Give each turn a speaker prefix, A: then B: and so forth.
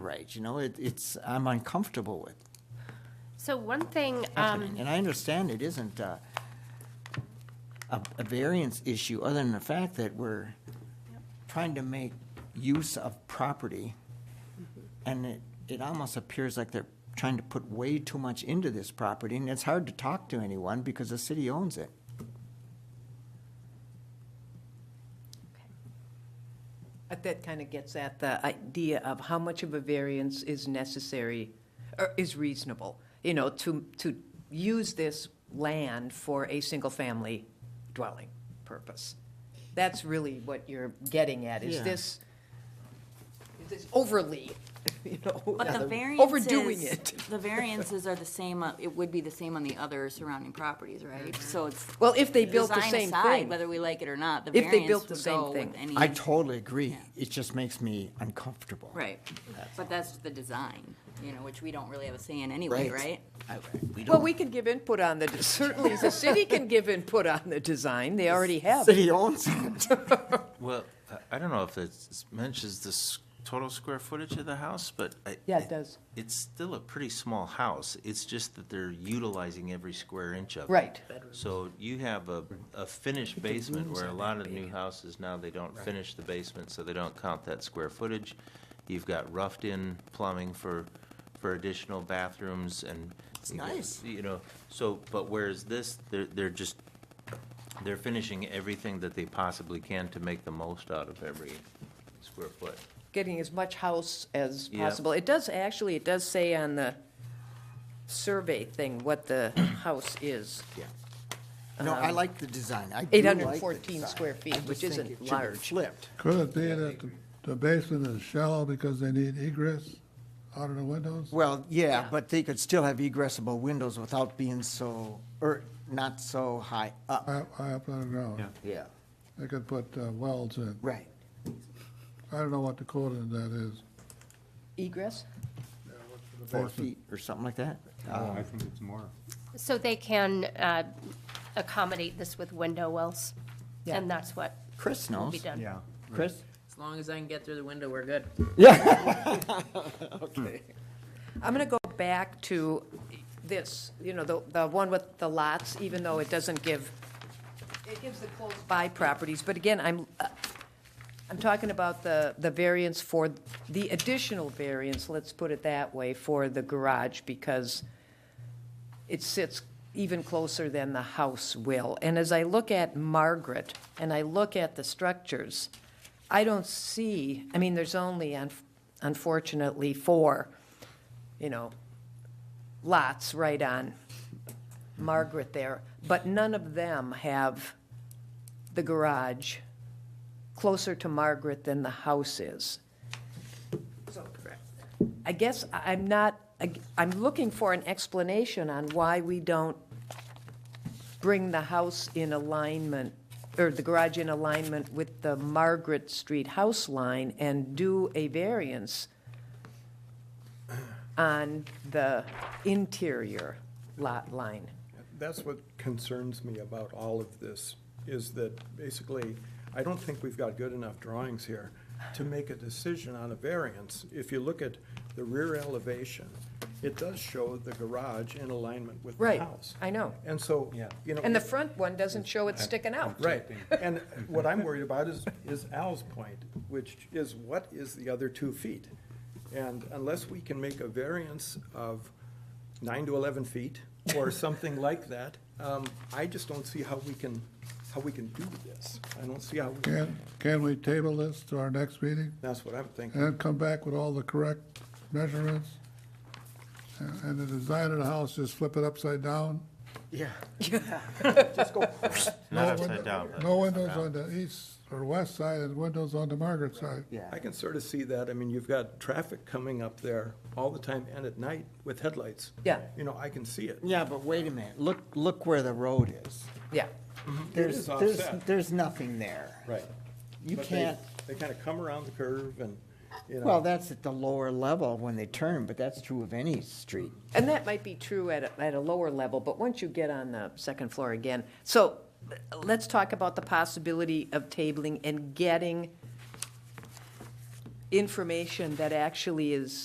A: right, you know, it, it's, I'm uncomfortable with
B: So one thing, um,
A: happening. And I understand it isn't uh, a, a variance issue, other than the fact that we're trying to make use of property, and it, it almost appears like they're trying to put way too much into this property, and it's hard to talk to anyone because the city owns it.
C: But Uh, that kind of gets at the idea of how much of a variance is necessary, or is reasonable, you know, to, to use this land for a single-family dwelling purpose. That's really what you're getting at, is
A: Yeah.
C: this, is this overly, you know,
D: But the variances.
C: overdoing it.
D: The variances are the same, uh, it would be the same on the other surrounding properties, right? So it's.
C: Mm-hmm. Well, if they built the
D: design
C: same
D: aside,
C: thing.
D: Whether we like it or not, the
C: If they built
D: variance
C: the same
D: would go with
C: thing.
D: any.
A: I totally agree. It just makes me uncomfortable.
D: Right, but that's the design, you know, which we don't really have a say in anyway, right?
A: I- we
C: Well,
A: don't-
C: we can give input on the, certainly the city can give input on the design, they already have.
A: City owns it.
E: Well, I- I don't know if it mentions the s- total square footage of the house, but. I-
C: Yeah, it does.
E: It's still a pretty small house. It's just that they're utilizing every square inch of it.
C: Right.
E: So you have a, a finished basement where a lot of new houses now, they don't finish the basement, so they don't count that square footage. You've got roughed-in plumbing for, for additional bathrooms and. It's
A: nice.
E: You know, so, but whereas this, they're, they're just, they're finishing everything that they possibly can to make the most out of every square foot.
C: getting as much house as
E: Yeah.
C: possible. It does, actually, it does say on the survey thing what the house is.
A: Yeah. No, I like the design. I do like the
C: 814
A: design.
C: square feet,
A: I just
C: which
A: think
C: isn't
A: it should be
C: large.
A: Flipped.
F: Could it be that the- the basement is shallow because they need egress out of the windows?
A: Well, yeah, but they could still have egressable windows without being so, or not so high up.
F: High high up on the ground?
A: Yeah.
F: They could put uh, wells in.
A: Right.
F: I don't know what the code in that is.
C: Egress?
A: Four feet or something like that.
G: I think it's more.
B: so they can uh, accommodate this with window wells?
C: Yeah.
B: And that's what
A: Chris
B: will
A: knows.
B: be done?
G: Yeah.
A: Chris?
H: As long as I can get through the window, we're good.
C: I'm going to go back to this, you know, the, the one with the lots, even though it doesn't give, it gives the close by properties, but again, I'm, uh, I'm talking about the, the variance for, the additional variance, let's put it that way, for the garage, because it sits even closer than the house will. And as I look at Margaret, and I look at the structures, I don't see, I mean, there's only un- unfortunately four, you know, lots right on Margaret there, but none of them have the garage closer to Margaret than the house is. I guess I- I'm not, I- I'm looking for an explanation on why we don't bring the house in alignment, or the garage in alignment with the Margaret Street house line and do a variance on the interior lot line.
G: That's what concerns me about all of this, is that basically, I don't think we've got good enough drawings here to make a decision on a variance. If you look at the rear elevation, it does show the garage in alignment with the
C: Right,
G: house.
C: I know.
G: And so, you know.
C: And the front one doesn't show it sticking out.
G: Right, and what I'm worried about is, is Al's point, which is what is the other two feet? And unless we can make a variance of nine to eleven feet or something like that, um, I just don't see how we can, how we can do this. I don't see how, we-
F: Can, can we table this to our next meeting
G: that's what I'm
F: and
G: thinking.
F: then come back with all the correct measurements? And and the design of the house, just flip it upside down?
A: Yeah.
G: Just go,
E: Not
F: No
E: upside
F: window-
E: down, but.
F: No windows on the east or west side and windows on the Margaret side.
A: Yeah.
G: I can sort of see that, I mean, you've got traffic coming up there all the time and at night with headlights.
C: Yeah.
G: You know, I can see it.
A: Yeah, but wait a minute. Look, look where the road is.
C: Yeah,
A: There's,
G: is
A: there's,
G: offset.
A: there's nothing there.
G: Right.
A: You
G: But they-
A: can't,
G: They kind of come around the curve and, you know.
A: well, that's at the lower level when they turn, but that's true of any street.
C: and that might be true at, a- at a lower level, but once you get on the second floor again. So let's talk about the possibility of tabling and getting information that actually is